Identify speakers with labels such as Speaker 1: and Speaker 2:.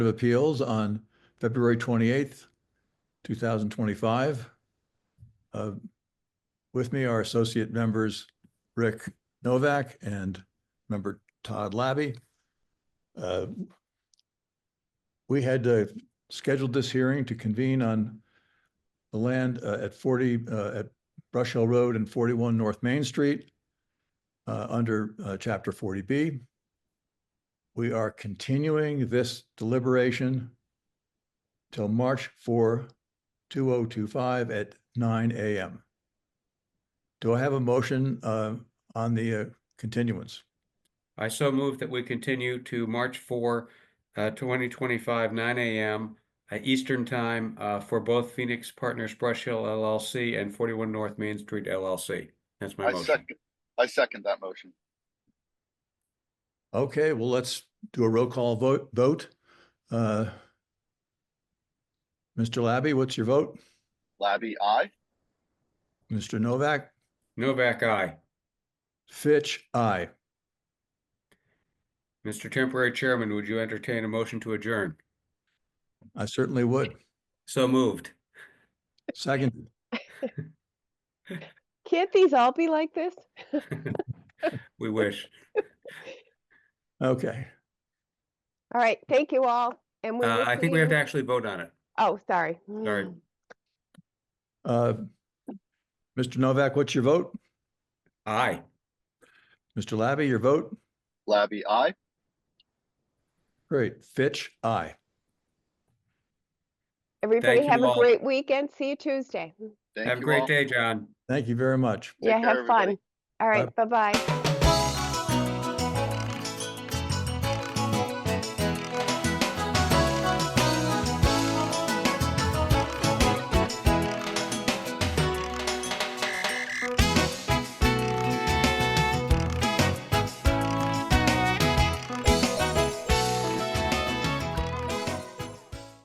Speaker 1: of Appeals on February 28th, 2025. Uh, With me are associate members Rick Novak and member Todd Labby. Uh, We had uh, scheduled this hearing to convene on the land uh, at 40, uh, at Brush Hill Road and 41 North Main Street uh, under uh, Chapter 40B. We are continuing this deliberation till March 4, 2025 at nine AM. Do I have a motion uh, on the uh, continuance?
Speaker 2: I so move that we continue to March 4, uh, 2025, 9 a.m. uh, Eastern Time uh, for both Phoenix Partners Brush Hill LLC and 41 North Main Street LLC. That's my
Speaker 3: I
Speaker 2: motion.
Speaker 3: second, I second that motion.
Speaker 1: Okay, well, let's do a roll call vote. Vote. Uh, Mr. Labby, what's your vote?
Speaker 3: Labby, I.
Speaker 1: Mr. Novak?
Speaker 2: Novak, aye.
Speaker 1: Fitch, aye.
Speaker 2: Mr. Temporary Chairman, would you entertain a motion to adjourn?
Speaker 1: I certainly would.
Speaker 2: So moved.
Speaker 1: Second,
Speaker 4: Can't these all be like this?
Speaker 2: We wish.
Speaker 1: okay.
Speaker 4: All right, thank you all, and we
Speaker 2: Uh,
Speaker 4: will
Speaker 2: I
Speaker 4: see
Speaker 2: think we have to
Speaker 4: you-
Speaker 2: actually vote on it.
Speaker 4: Oh, sorry.
Speaker 2: Sorry.
Speaker 4: Mm.
Speaker 1: Uh, Mr. Novak, what's your vote?
Speaker 2: Aye.
Speaker 1: Mr. Labby, your vote?
Speaker 3: Labby, I.
Speaker 1: Great. Fitch, aye.
Speaker 4: Everybody
Speaker 2: you
Speaker 4: have a
Speaker 2: all.
Speaker 4: great weekend. See you Tuesday.
Speaker 3: Thank
Speaker 2: Have a
Speaker 3: you
Speaker 2: great
Speaker 3: all.
Speaker 2: day, John.
Speaker 1: Thank you very much.
Speaker 4: Yeah,
Speaker 3: care,
Speaker 4: have
Speaker 3: everybody.
Speaker 4: fun. All right, bye-bye.